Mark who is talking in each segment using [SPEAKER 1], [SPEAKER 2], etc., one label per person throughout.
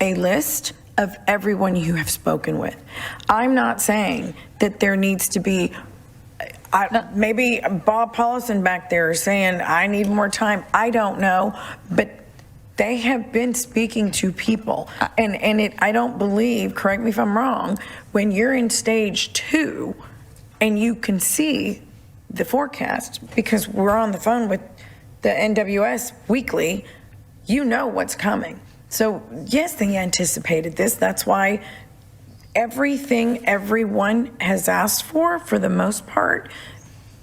[SPEAKER 1] a list of everyone you have spoken with. I'm not saying that there needs to be, I, maybe Bob Paulson back there is saying, I need more time. I don't know, but they have been speaking to people. And, and it, I don't believe, correct me if I'm wrong, when you're in stage two and you can see the forecast, because we're on the phone with the NWS weekly, you know what's coming. So yes, they anticipated this. That's why everything everyone has asked for, for the most part,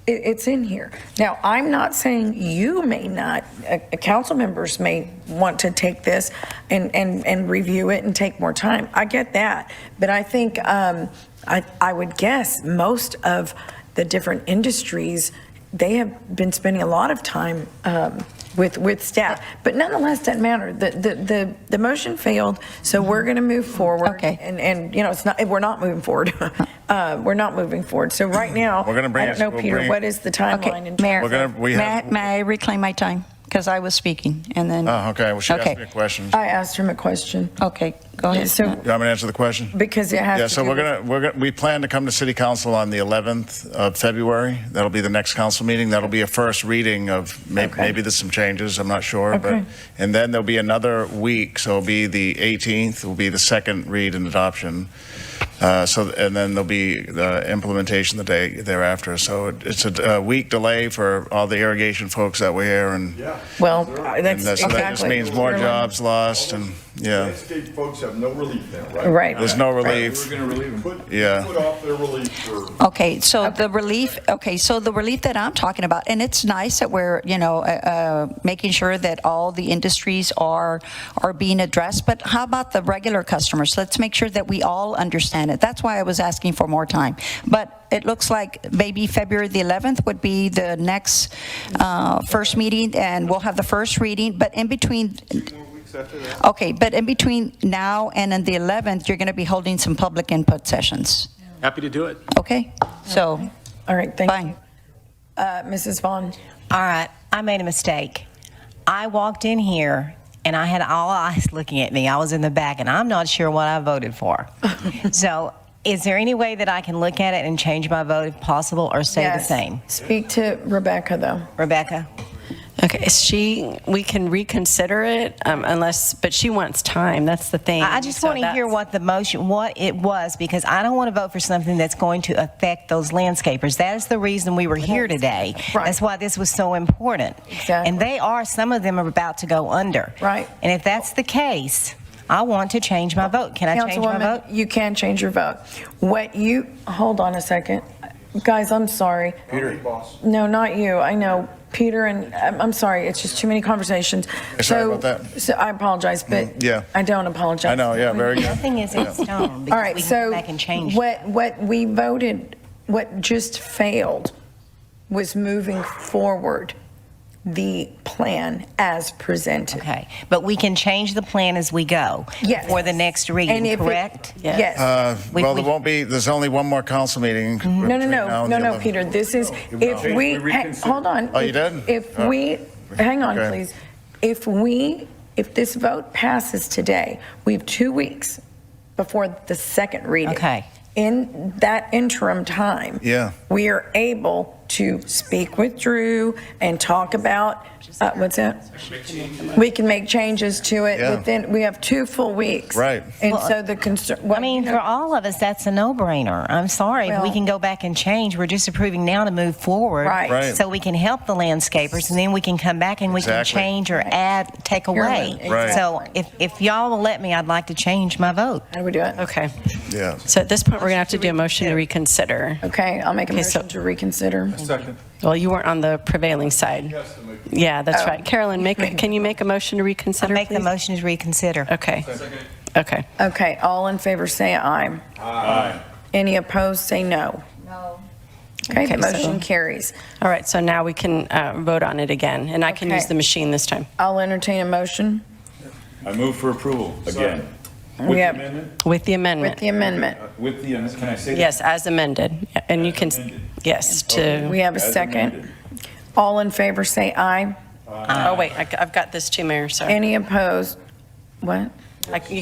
[SPEAKER 1] it, it's in here. Now, I'm not saying you may not, uh, uh, council members may want to take this and, and, and review it and take more time. I get that. But I think, um, I, I would guess most of the different industries, they have been spending a lot of time, um, with, with staff. But nonetheless, doesn't matter. The, the, the, the motion failed, so we're going to move forward.
[SPEAKER 2] Okay.
[SPEAKER 1] And, and, you know, it's not, we're not moving forward. Uh, we're not moving forward. So right now,
[SPEAKER 3] Mm-hmm. We're gonna bring
[SPEAKER 1] I don't
[SPEAKER 3] it-
[SPEAKER 1] know,
[SPEAKER 3] we'll
[SPEAKER 1] Peter,
[SPEAKER 3] bring it-
[SPEAKER 1] what is the timeline?
[SPEAKER 2] Okay,
[SPEAKER 1] in
[SPEAKER 2] Mayor,
[SPEAKER 3] We're gonna- we
[SPEAKER 2] may
[SPEAKER 3] have-
[SPEAKER 2] I- may I reclaim my time? Because I was speaking, and then...
[SPEAKER 3] Oh, okay, well, she asked me a question.
[SPEAKER 1] I asked him a question
[SPEAKER 2] Okay, go ahead.
[SPEAKER 1] So-
[SPEAKER 3] You want me to answer the question?
[SPEAKER 1] because it has to
[SPEAKER 3] Yeah, so
[SPEAKER 1] do
[SPEAKER 3] we're
[SPEAKER 1] with-
[SPEAKER 3] gonna, we're gonna, we plan to come to city council on the 11th of February. That'll be the next council meeting. That'll be a first reading of, may-
[SPEAKER 1] Okay.
[SPEAKER 3] maybe there's some changes, I'm not sure. but
[SPEAKER 1] Okay.
[SPEAKER 3] And then there'll be another week, so it'll be the 18th, will be the second read and adoption. Uh, So, and then there'll be the implementation the day thereafter. So it- it's a uh, week delay for all the irrigation folks that were here and.
[SPEAKER 1] Well,
[SPEAKER 3] and
[SPEAKER 1] that's
[SPEAKER 3] that- so That just
[SPEAKER 1] exactly.
[SPEAKER 3] means more jobs lost and, yeah,
[SPEAKER 4] Landscape folks have no relief then, right?
[SPEAKER 1] Right.
[SPEAKER 3] there's no
[SPEAKER 1] Right.
[SPEAKER 3] relief.
[SPEAKER 4] Put-
[SPEAKER 3] Yeah.
[SPEAKER 4] Put off their relief for.
[SPEAKER 2] Okay, so the relief, okay, so the relief that I'm talking about, and it's nice that we're, you know, uh, uh, making sure that all the industries are, are being addressed, but how about the regular customers? Let's make sure that we all understand it. That's why I was asking for more time. But it looks like maybe February the 11th would be the next uh, first meeting, and we'll have the first reading, but in between, okay, but in between now and then the 11th, you're going to be holding some public input sessions.
[SPEAKER 5] Happy to do it.
[SPEAKER 2] Okay, so,
[SPEAKER 1] All right, thank you.
[SPEAKER 2] fine.
[SPEAKER 1] Uh, Mrs. Vaughn,
[SPEAKER 6] All right, I made a mistake. I walked in here and I had all eyes looking at me. I was in the back and I'm not sure what I voted for. so, is there any way that I can look at it and change my vote if possible or stay
[SPEAKER 1] yes.
[SPEAKER 6] the same?
[SPEAKER 1] Speak to Rebecca, though.
[SPEAKER 6] Rebecca?
[SPEAKER 7] Okay, she, we can reconsider it um, unless, but she wants time, that's the thing.
[SPEAKER 6] I I just
[SPEAKER 7] So
[SPEAKER 6] want to hear
[SPEAKER 7] that's-
[SPEAKER 6] what the motion, what it was, because I don't want to vote for something that's going to affect those landscapers. That is the reason we were here today.
[SPEAKER 1] Right.
[SPEAKER 6] That's why this was so important.
[SPEAKER 1] Exactly.
[SPEAKER 6] And they are, some of them are about to go under.
[SPEAKER 1] Right.
[SPEAKER 6] And if that's the case, I want to change my vote. Can I change my vote?
[SPEAKER 1] Councilwoman, you can change your vote. What you, hold on a second. Guys, I'm sorry.
[SPEAKER 4] Peter. Boss.
[SPEAKER 1] No, not you. I know. Peter and, I'm I'm sorry, it's just too many conversations.
[SPEAKER 3] Sorry
[SPEAKER 1] So-
[SPEAKER 3] about that. Mm,
[SPEAKER 1] So I apologize, but.
[SPEAKER 3] yeah.
[SPEAKER 1] I don't apologize.
[SPEAKER 3] I know, yeah, very good.
[SPEAKER 6] Nothing is in stone
[SPEAKER 1] All
[SPEAKER 6] because
[SPEAKER 1] right,
[SPEAKER 6] we can
[SPEAKER 1] so
[SPEAKER 6] go back and change.
[SPEAKER 1] what, what we voted, what just failed was moving forward the plan as presented.
[SPEAKER 6] Okay, but we can change the plan as we go.
[SPEAKER 1] Yes.
[SPEAKER 6] For the next
[SPEAKER 1] And
[SPEAKER 6] reading,
[SPEAKER 1] if it-
[SPEAKER 6] correct?
[SPEAKER 1] Yes.
[SPEAKER 3] Uh,
[SPEAKER 6] We-
[SPEAKER 3] Well,
[SPEAKER 6] we-
[SPEAKER 3] there won't be, there's only one more council meeting.
[SPEAKER 1] No, no, no, no, no, Peter, this is, if we, ha- hold on.
[SPEAKER 3] Oh, you did?
[SPEAKER 1] If
[SPEAKER 3] Oh.
[SPEAKER 1] we, hang on,
[SPEAKER 3] Okay.
[SPEAKER 1] please. If we, if this vote passes today, we have two weeks before the second reading.
[SPEAKER 6] Okay.
[SPEAKER 1] In that interim time.
[SPEAKER 3] Yeah.
[SPEAKER 1] We are able to speak with Drew and talk about, uh, what's that? We can make changes to it
[SPEAKER 3] Yeah.
[SPEAKER 1] within, we have two full weeks.
[SPEAKER 3] Right.
[SPEAKER 1] And so the concern.
[SPEAKER 6] I mean, for all of us, that's a no-brainer. I'm sorry, if we
[SPEAKER 1] Well-
[SPEAKER 6] can go back and change, we're just approving now to move forward.
[SPEAKER 1] Right.
[SPEAKER 3] Right.
[SPEAKER 6] So we can help the landscapers, and then we can come back and we can
[SPEAKER 3] Exactly.
[SPEAKER 6] change or add, take
[SPEAKER 1] You're
[SPEAKER 6] away.
[SPEAKER 1] right. Right.
[SPEAKER 6] So if, if y'all will let me, I'd like to change my vote.
[SPEAKER 1] How do we do it?
[SPEAKER 7] Okay,
[SPEAKER 3] Yeah.
[SPEAKER 7] so at this point, we're going to have to do a motion to reconsider.
[SPEAKER 1] Okay, I'll make a
[SPEAKER 7] Okay, so-
[SPEAKER 1] motion to reconsider.
[SPEAKER 4] Second.
[SPEAKER 7] Well, you weren't on the prevailing side.
[SPEAKER 4] Yes, to make-
[SPEAKER 7] Yeah, that's right. Carolyn, make, a- can you make a motion to
[SPEAKER 6] I
[SPEAKER 7] reconsider,
[SPEAKER 6] Oh. make the
[SPEAKER 7] please?
[SPEAKER 6] motion to reconsider.
[SPEAKER 7] Okay, okay.
[SPEAKER 1] Okay, all in favor, say aye. Aye. Any opposed, say no. No. Okay, the
[SPEAKER 7] Okay, so-
[SPEAKER 1] motion carries.
[SPEAKER 7] All right, so now we can uh, vote on it again, and I can
[SPEAKER 1] Okay.
[SPEAKER 7] use the machine this time
[SPEAKER 1] I'll entertain a motion
[SPEAKER 8] I move for approval, again.
[SPEAKER 1] We
[SPEAKER 8] With the
[SPEAKER 1] have-
[SPEAKER 8] amendment,
[SPEAKER 7] with the
[SPEAKER 1] with
[SPEAKER 7] amendment.
[SPEAKER 1] the amendment.
[SPEAKER 8] with the, am- can I say? that?
[SPEAKER 7] Yes, as amended, and you can,
[SPEAKER 8] As amended.
[SPEAKER 7] yes, to,
[SPEAKER 1] We have a
[SPEAKER 8] As
[SPEAKER 1] second.
[SPEAKER 8] amended.
[SPEAKER 1] All in favor, say aye.
[SPEAKER 4] Uh,
[SPEAKER 7] oh, wait, I- I've got this too, Mayor, sorry.
[SPEAKER 1] Any opposed? What?
[SPEAKER 7] I- You